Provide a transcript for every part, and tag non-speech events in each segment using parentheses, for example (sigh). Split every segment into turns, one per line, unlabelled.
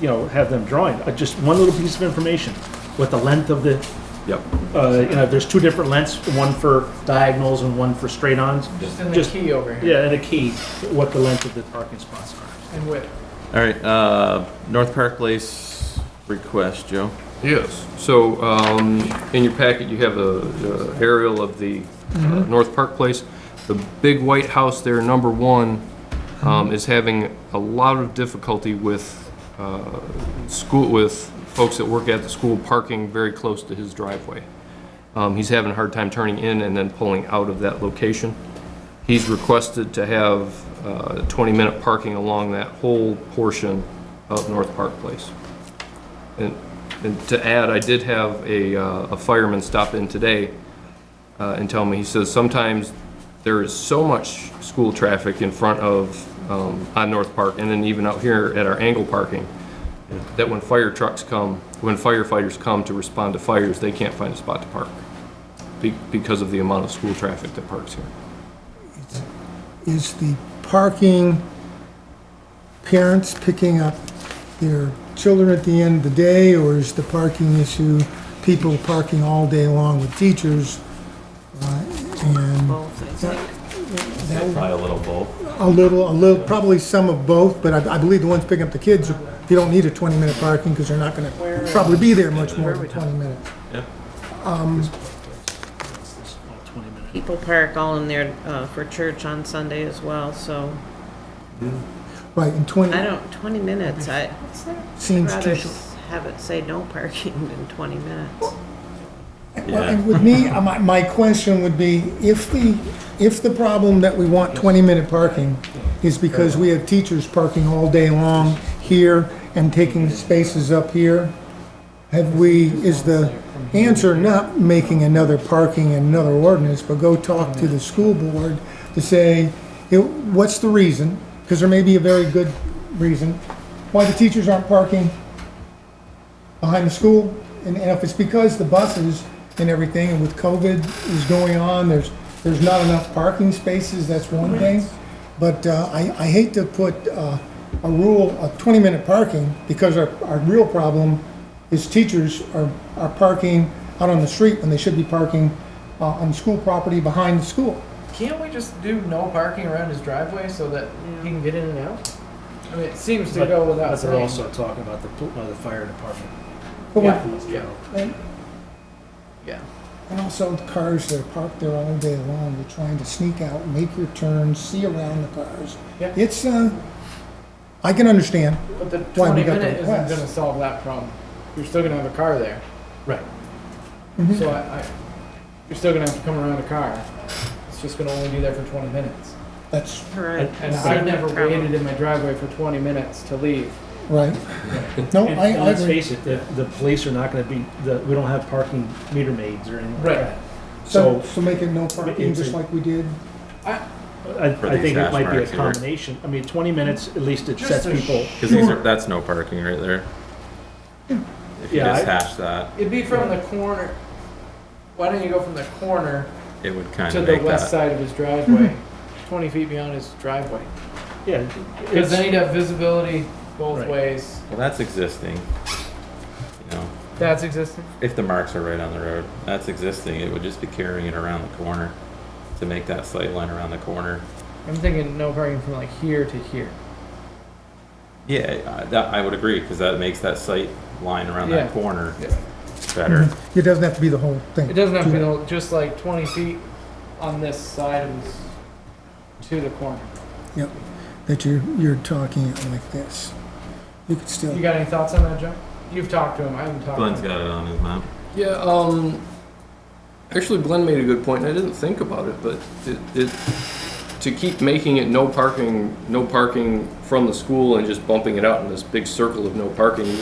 you know, have them drawing, uh, just one little piece of information, what the length of the,
Yep.
uh, you know, there's two different lengths, one for diagonals and one for straight-ons.
Just in the
Just-
key over here
Yeah, and a key, what the length of the parking spots are.
and width.
All right, uh, North Park Place request, Joe.
Yes, so um, in your packet, you have a a aerial of the uh, North Park Place. The big white house there, number one, um, is having a lot of difficulty with uh, school, with folks that work at the school parking very close to his driveway. Um, He's having a hard time turning in and then pulling out of that location. He's requested to have 20-minute parking along that whole portion of North Park Place. And, and to add, I did have a, uh, a fireman stop in today, uh, and tell me, he says sometimes there is so much school traffic in front of, um, on North Park, and then even out here at our angle parking, that when fire trucks come, when firefighters come to respond to fires, they can't find a spot to park be- because of the amount of school traffic that parks here.
is the parking, parents picking up their children at the end of the day, or is the parking issue people parking all day long with teachers? uh, And
both, I think.
that-
Probably a little both.
a little, a little, probably some of both, but I, I believe the ones picking up the kids, you don't need a twenty-minute parking, because they're not gonna probably be there much more than twenty minutes.
Twenty minutes.
People park all in there uh, for church on Sunday as well, so
Right, and twenty
I don't, 20 minutes, I
seems
rather
too short.
s- have it say no parking (laughs) than 20 minutes.
Well, and with me, uh, my, my question would be, if the, if the problem that we want twenty-minute parking is because we have teachers parking all day long here and taking spaces up here, have we, is the answer not making another parking and another ordinance, but go talk to the school board to say, it- what's the reason? Because there may be a very good reason why the teachers aren't parking behind the school, and, and if it's because the buses and everything, and with COVID is going on, there's, there's not enough parking spaces, that's one thing. But, uh, I, I hate to put, uh, a rule of twenty-minute parking, because our, our real problem is teachers are, are parking out on the street when they should be parking, uh, on school property behind the school.
Can't we just do no parking around his driveway so that he can get in and out? I mean, it seems to
But-
go without
But they're
saying.
also talking about the, pl- uh, the fire department.
But we-
Yeah, yeah,
And
yeah.
and also the cars that are parked there all day long, you're trying to sneak out, make your turn, see around the cars.
Yeah.
It's, uh, I can understand,
But the
Why,
twenty
we got the
minute isn't
request.
gonna solve that problem. You're still gonna have a car there.
Right.
So I, I, you're still gonna have to come around a car. It's just gonna only be there for twenty minutes.
that's
Correct.
And
Same
I've never
problem.
waited in my driveway for twenty minutes to leave.
right. No,
And
I,
and
I
let's
agree.
face it, the, the police are not gonna be, the, we don't have parking meter maids or anything like
Right.
that.
So,
So
so make it no parking,
It's a-
just like we did.
I,
For
I
these
think it
hash
might be a
marks here.
combination. I mean, twenty minutes, at least it
Just
sets
a
people.
Because these are, that's no parking right there. If you
Yeah,
just
I-
hash that,
It'd be from the corner. Why don't you go from the corner
it would kind
to
of
the
make
west
that.
side of his driveway, twenty feet beyond his driveway?
Yeah.
Because
it's-
then he'd have visibility both
Right.
ways.
Well, that's existing. You know,
That's existing.
if the marks are right on the road, that's existing. It would just be carrying it around the corner to make that sight line around the corner.
I'm thinking no parking from like here to here.
Yeah, I- that, I would agree, because that makes that sight line around
Yeah.
that corner
Yeah. Mm-hmm.
better.
It doesn't have to be the whole thing.
It doesn't have to be the whole- just like 20 feet on this side of his to the corner.
Yep, that you're, you're talking it like this. You could still,
You got any thoughts on that, Joe? You've talked to him. I haven't talked.
Glenn's
to him.
got it on his map.
Yeah, um, actually, Glenn made a good point, and I didn't think about it, but it, it, to keep making it no parking, no parking from the school and just bumping it out in this big circle of no parking,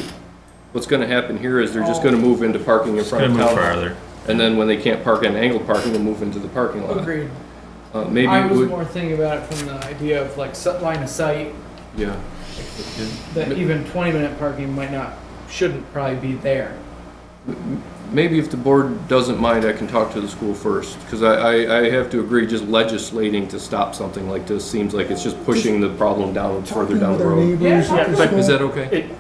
what's gonna happen here is they're just gonna move into parking in
It's
front
gonna
of
move
town.
farther.
And then when they can't park in angled parking, they'll move into the parking lot.
Agreed.
Uh, maybe,
I was
we-
more thinking about it from the idea of like set line of sight
yeah.
that even 20 minute parking might not shouldn't probably be there.
Maybe if the board doesn't mind, I can talk to the school first, because I, I, I have to agree, just legislating to stop something like this seems like it's just pushing the problem down, further
talking
down
with
the
our
road.
neighbors
Yeah,
at the
but-
school.
Is that okay?
It,